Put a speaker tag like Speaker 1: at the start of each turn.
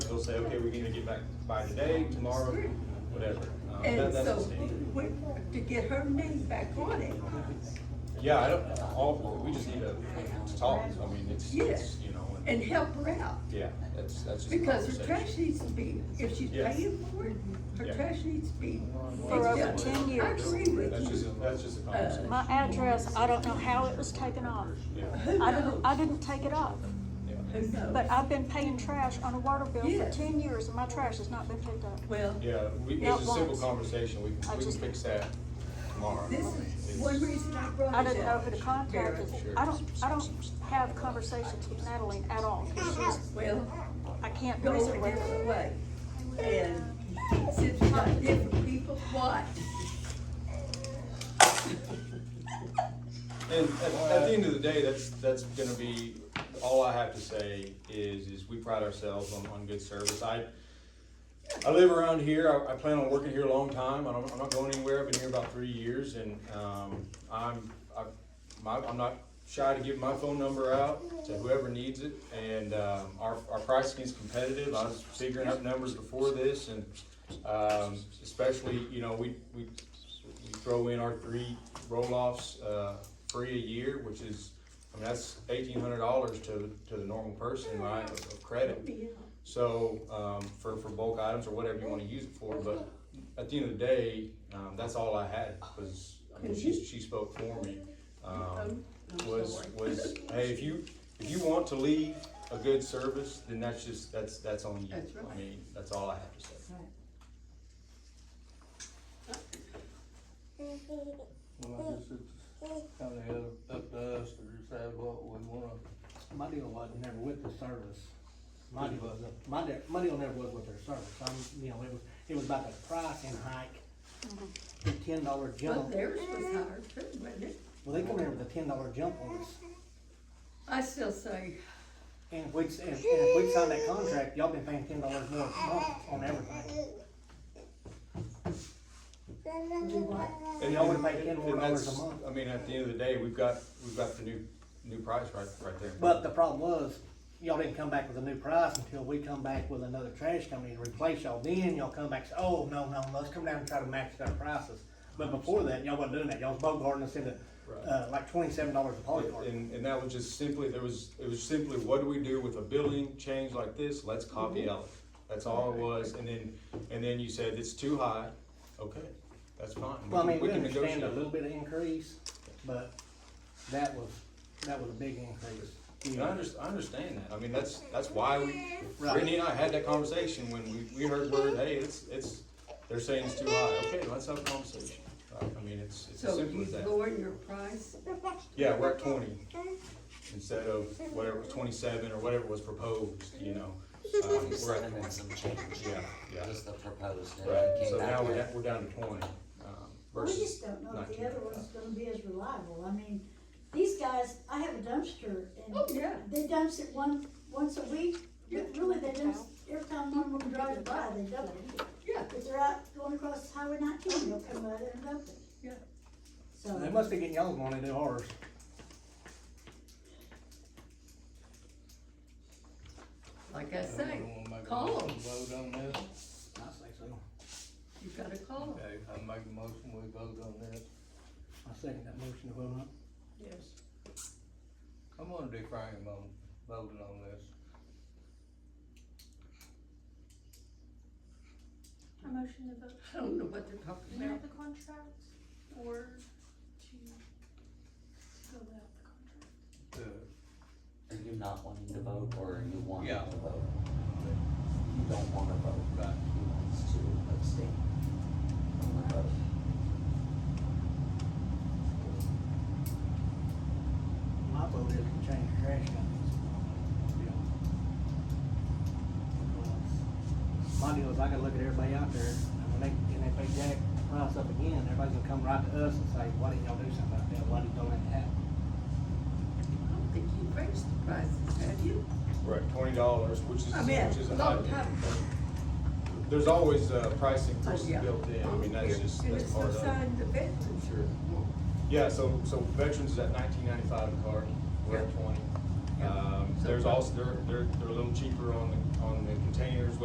Speaker 1: say, okay, we're gonna get back by today, tomorrow, whatever. Um, that-
Speaker 2: And
Speaker 1: that's the
Speaker 2: so,
Speaker 1: standard.
Speaker 2: we, to get her name back on it,
Speaker 1: Yeah, I don't, all, we just need to, to talk, I mean, it's, it's,
Speaker 2: yes,
Speaker 1: you know, and,
Speaker 2: and help her out.
Speaker 1: yeah, that's, that's just a
Speaker 2: Because her
Speaker 1: conversation.
Speaker 2: trash needs to be, if she's
Speaker 1: Yes.
Speaker 2: paying for it, her
Speaker 1: Yeah.
Speaker 2: trash needs to be.
Speaker 3: For over
Speaker 2: Yeah,
Speaker 3: 10
Speaker 2: I
Speaker 3: years.
Speaker 2: agree
Speaker 1: That's
Speaker 2: with you.
Speaker 1: just, that's just a
Speaker 2: Uh,
Speaker 1: conversation,
Speaker 3: My address, I don't know how it was taken off.
Speaker 1: yeah,
Speaker 2: Who
Speaker 3: I didn't, I
Speaker 2: knows?
Speaker 3: didn't take it off,
Speaker 1: yeah.
Speaker 2: Who knows?
Speaker 3: but I've been paying trash on a water bill for
Speaker 2: Yes.
Speaker 3: ten years and my trash has not been picked up.
Speaker 2: Well,
Speaker 1: Yeah, we,
Speaker 3: Not
Speaker 1: it's a simple
Speaker 3: once.
Speaker 1: conversation, we,
Speaker 3: I
Speaker 1: can- we can
Speaker 3: just-
Speaker 1: fix that tomorrow.
Speaker 2: this
Speaker 1: I mean,
Speaker 2: is
Speaker 1: it's-
Speaker 2: one reason I brought it up.
Speaker 3: I didn't know who to contact.
Speaker 2: Barrett.
Speaker 3: and I don't, I don't have conversations with Natalie at all. 'cause she's-
Speaker 2: Well,
Speaker 3: I can't
Speaker 2: go
Speaker 3: reason
Speaker 2: a
Speaker 3: with
Speaker 2: different
Speaker 3: her.
Speaker 2: way. And since we got different people, what?
Speaker 1: And at, at the end of the day, that's, that's gonna be, all I have to say is, is we pride ourselves on, on good service. I, I live around here, I, I plan on working here a long time, I don't, I'm not going anywhere, I've been here about three years, and, um, I'm, I, my, I'm not shy to give my phone number out to whoever needs it, and, um, our, our pricing is competitive, I was figuring up numbers before this, and, um, especially, you know, we, we, we throw in our three roll-offs, uh, free a year, which is, I mean, that's eighteen hundred dollars to, to the normal person, right, of of credit. So, um, for, for bulk items or whatever you wanna use it for, but at the end of the day, um, that's all I had, was, I mean, she, she spoke for me. Um, was, was, hey, if you, if you want to leave a good service, then that's just, that's, that's on you.
Speaker 2: That's right.
Speaker 1: I mean, that's all I have to say.
Speaker 4: Well, I guess it's kinda up, up to us to decide what we wanna,
Speaker 5: My deal was never with the service. My deal was, my, de- my deal never was with their service. I'm, you know, it was, it was about the price and hike. The ten dollar
Speaker 2: Well,
Speaker 5: jump.
Speaker 2: theirs was higher too, wasn't it?
Speaker 5: Well, they come in with a ten dollar jump on us.
Speaker 2: I still say,
Speaker 5: And if we, and and if we sign that contract, y'all been paying ten dollars more a month on everything.
Speaker 1: And
Speaker 5: Y'all would've paid ten more
Speaker 1: and
Speaker 5: dollars
Speaker 1: that's-
Speaker 5: a month.
Speaker 1: I mean, at the end of the day, we've got, we've got the new, new price right, right there.
Speaker 5: But the problem was, y'all didn't come back with a new price until we come back with another trash company to replace y'all. Then y'all come back, and say, oh, no, no, let's come down and try to match their prices. But before that, y'all wasn't doing that. Y'all was bogarting us into, uh, like twenty-seven dollars a polycart.
Speaker 1: And, and that was just simply, there was, it was simply, what do we do with a billing change like this? Let's
Speaker 5: Mm-hmm.
Speaker 1: copy out. That's all it was, and then, and then you said, it's too high, okay, that's fine. We
Speaker 5: Well,
Speaker 1: can-
Speaker 5: I mean, we
Speaker 1: can
Speaker 5: understand a
Speaker 1: negotiate.
Speaker 5: little bit of increase, but that was, that was a big increase. You
Speaker 1: And I
Speaker 5: know,
Speaker 1: under, I understand that, I mean, that's, that's why we,
Speaker 5: Right.
Speaker 1: Brittany and I had that conversation when we, we heard word, hey, it's, it's, they're saying it's too high, okay, let's have a conversation. Right? I mean, it's, it's as
Speaker 2: so
Speaker 1: simple
Speaker 2: you
Speaker 1: as that.
Speaker 2: lower your price,
Speaker 1: Yeah, we're at twenty instead of whatever, twenty-seven or whatever was proposed, you know. Um, we're at 20.
Speaker 6: and some change.
Speaker 1: Yeah, yeah.
Speaker 6: Just the proposed. and it
Speaker 1: Right,
Speaker 6: came
Speaker 1: so
Speaker 6: back
Speaker 1: now we're,
Speaker 6: with-
Speaker 1: down- we're down to twenty, um,
Speaker 7: We
Speaker 1: versus.
Speaker 7: just don't know if the
Speaker 1: 19.
Speaker 7: other one's gonna be as reliable, I mean, these guys, I have a dumpster
Speaker 2: Oh, yeah.
Speaker 7: and they dumps it one, once a week,
Speaker 2: Yeah.
Speaker 7: but really they dump, every time one of them drives by, they dump it.
Speaker 2: yeah,
Speaker 7: If they're out going across Highway nineteen, they'll come by there and dump it.
Speaker 2: Yeah.
Speaker 7: So,
Speaker 5: They must be getting y'all's money, they're ours.
Speaker 2: like I
Speaker 4: do
Speaker 2: say,
Speaker 4: we wanna make a
Speaker 2: call
Speaker 4: motion
Speaker 2: 'em.
Speaker 4: vote on this?
Speaker 5: I say so.
Speaker 2: you gotta call her.
Speaker 4: Okay, I make a motion, we vote on this.
Speaker 5: I second that motion to vote on.
Speaker 2: Yes.
Speaker 4: I'm gonna deframe on voting on this.
Speaker 8: A motion to vote
Speaker 2: I don't know what they're talking
Speaker 8: to
Speaker 2: about.
Speaker 8: have the contract or to fill out the contract?
Speaker 4: The-
Speaker 6: Are you not wanting to vote or are you wanting
Speaker 4: Yeah.
Speaker 6: to vote? You don't wanna vote, right? He wants to abstain from the vote.
Speaker 5: My vote is to change the trash companies. My deal is I gotta look at everybody out there, and when they, and if they jack price up again, everybody's gonna come right to us and say, why didn't y'all do something about that, why didn't y'all let that happen?
Speaker 2: I don't think you raised the prices, have you?
Speaker 1: We're at twenty dollars, which is,
Speaker 2: I mean,
Speaker 1: which is
Speaker 2: a
Speaker 1: a
Speaker 2: long
Speaker 1: high.
Speaker 2: time.
Speaker 1: There's always, uh, price increases
Speaker 2: Oh, yeah.
Speaker 1: built in, I mean, that's
Speaker 2: And-
Speaker 1: just,
Speaker 2: And
Speaker 1: that's
Speaker 2: it's
Speaker 1: part
Speaker 2: no
Speaker 1: of it.
Speaker 2: sign the veterans are,
Speaker 1: Yeah, so, so veterans is at nineteen ninety-five a cart, we're at
Speaker 2: Yeah.
Speaker 1: twenty.
Speaker 2: Yeah.
Speaker 1: Um, there's also, they're, they're, they're a little cheaper on the, on the containers,